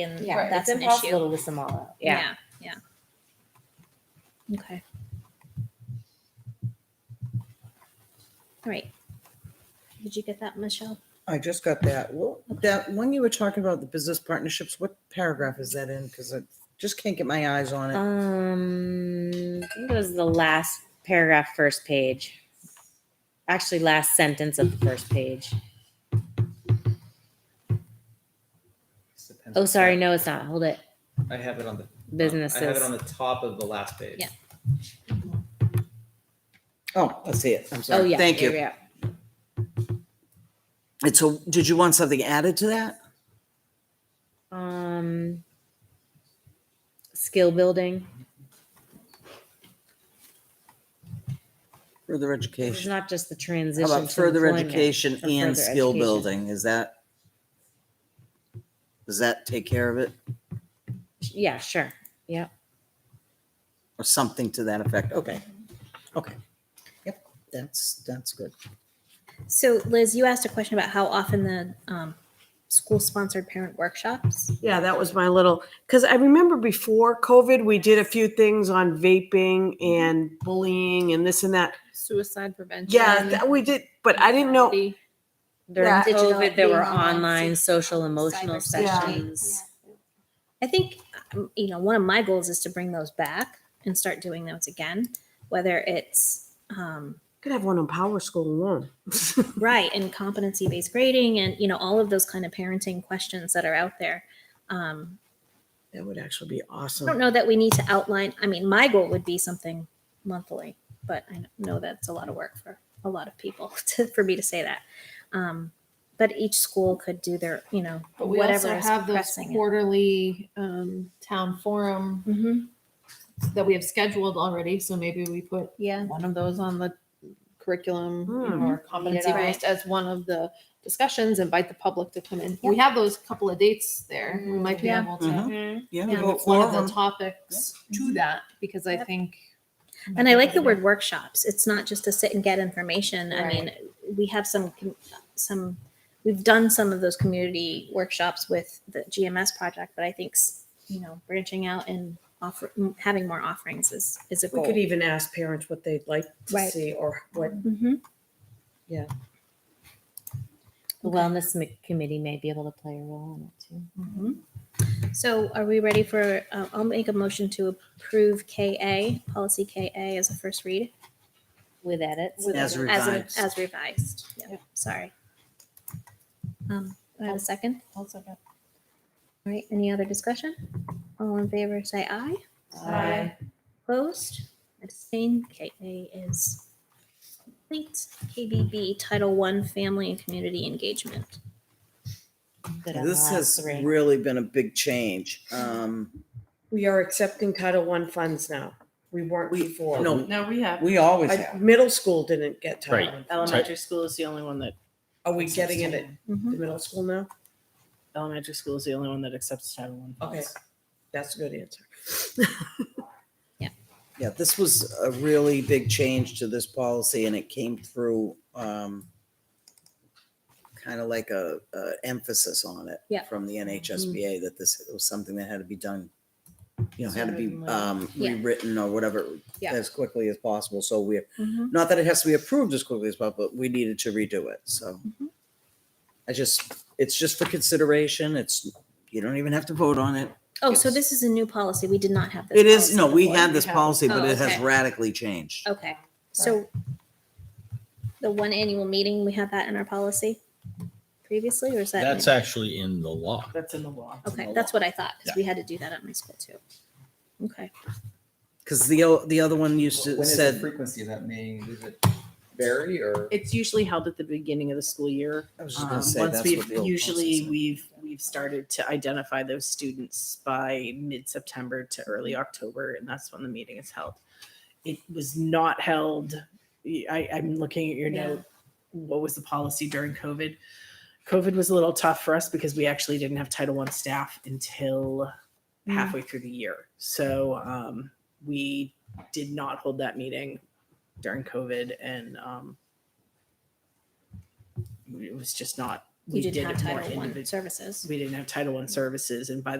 and Yeah, that's it's an impossible issue. to list them all up. Yeah. yeah, Okay. All right. Did you get that, Michelle? I just got that. Well, that, when you were talking about the business partnerships, what paragraph is that in? Because I just can't get my eyes on Uh, it. Um, I think it was the last paragraph, first page. Actually, last sentence of the first page. Oh, sorry, no, it's not. Hold it. I have it on the I have it on Businesses. the top of the last page. Yeah. Oh, I see it. I'm Oh, sorry. yeah. Thank yeah, you. yeah. And so did you want something added to that? Um, skill building. Further It's education. not just the How transition. about to further employment, education for and further skill education. building? Is that? Does that take care of it Yeah, sure. Yeah. or something to that effect? Okay. Okay. Yep. That's, that's good. So, Liz, you asked a question about how often the um, school-sponsored parent workshops. Yeah, that was my little, because I remember before COVID, we did a few things on vaping Mm-hmm. and bullying and this and that. Suicide prevention. Yeah, that we did, but I didn't know. anxiety. During Yeah. Digital COVID, there were being online, online so- social emotional cybersecurity. Yeah. sessions. I think um, you know one of my goals is to bring those back and start doing those again, whether it's um, Could have one on Power School alone. right and competency based grading and you know all of those kind of parenting questions that are out there. Um, That would actually be I don't awesome. know that we need to outline. I mean, my goal would be something monthly, but I know that's a lot of work for a lot of people to, for me to say that. Um, but each school could do their, you know, But we whatever also is have those pressing. quarterly um, town forum Mhm. that we have scheduled already. So maybe we put Yeah. one of those on the curriculum Hmm. or competency Right. based as one of the discussions. Invite the public to come in. We have those couple of dates there. We might be Mm-hmm. Yeah. able to Mm-hmm. Mhm. Mm-hmm. Yeah. Yeah. go devote one of for 'em. the topics to that because I Mm-hmm. Yep. think. And I like the word workshops. It's not just to sit and get information. I mean, we have some, com- some, we've done some of those community workshops with the GMS project, but I think, s- you know, branching out and offer, m- having more offerings is, is a We goal. e- could even ask parents what they'd like to Right. see or what, Mhm. The wellness m- committee may be able to play a role in it too. Mm-hmm. So are we ready for, uh, I'll make a motion to approve KA, policy KA as a first read? With edits. As As, a- revised. as revised. Yeah, sorry. Um, do I have a second? All right, any other discussion? All in favor, say aye. Opposed? Abstained? KA is complete. KBB Title One Family and Community Engagement. Good Yeah, on the This last has three. really been a big change. Um, we are accepting Title One funds now. We weren't before. no, No, we have. we always I- have. Middle school didn't get Title Right. One. Elementary school is the only one that, Are we getting it at the Mhm. middle school now? elementary school is the only one that accepts Title One. Okay, that's a good answer. Yeah, this was a really big change to this policy and it came through, um, kind of like a, a emphasis on it Yeah. from the NHSBA that this was something that had to be done, you know, had to be, Sooner than later. um, Yeah. rewritten or whatever Yeah. as quickly as possible. So we're, Mhm. not that it has to be approved as quickly as possible, but we needed to redo it, so. I just, it's just for consideration. It's, you don't even have to vote on it. Oh, so this is a new policy. We did not have this. It is, policy no, we before. had this have- policy, but Oh, it has okay. Oh. radically changed. Okay, so Um, the one annual meeting, we had that in our policy previously, or is that? That's actually in the law. That's in the law. Okay, that's what I thought, because we had to do that at my school too. Okay, Cause the, o- the other one used When to is the said, frequency of that meeting? Does it vary or? It's usually held at the beginning of the school year. I was just Um, gonna say, Once that's what we've, the old usually policy we've, we've started to identify those students by mid-September to early October, and that's when the meeting is held. It was not held, I, I'm looking at your Yeah. note, what was the policy during COVID? COVID was a little tough for us because we actually didn't have Title I staff until halfway through the year. So, um, we did not hold that meeting during COVID and, um, it was just not, you we did didn't have it more Title One individually. services. We didn't have Title I services and by the